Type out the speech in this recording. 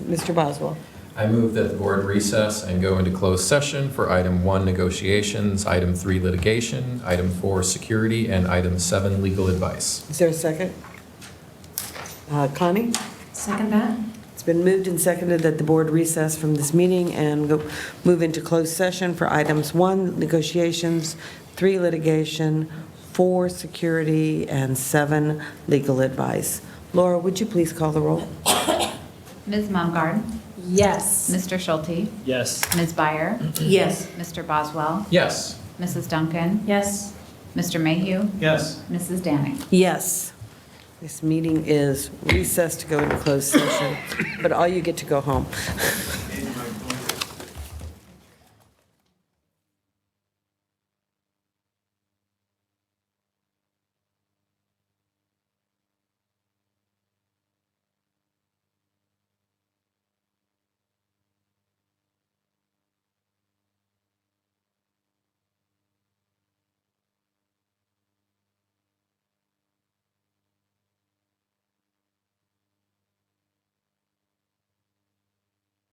Mr. Boswell. I move that the board recess and go into closed session for item one, negotiations, item three, litigation, item four, security, and item seven, legal advice. Is there a second? Uh, Connie? Second that? It's been moved and seconded that the board recess from this meeting and go- move into closed session for items one, negotiations, three, litigation, four, security, and seven, legal advice. Laura, would you please call the roll? Ms. Mumgarde, Yes. Mr. Schulte, Yes. Ms. Byer, Yes. Mr. Boswell, Yes. Mrs. Duncan, Yes. Mr. Mayhew, Yes. Mrs. Danning. Yes. This meeting is recessed to go into closed session, but all you get to go home.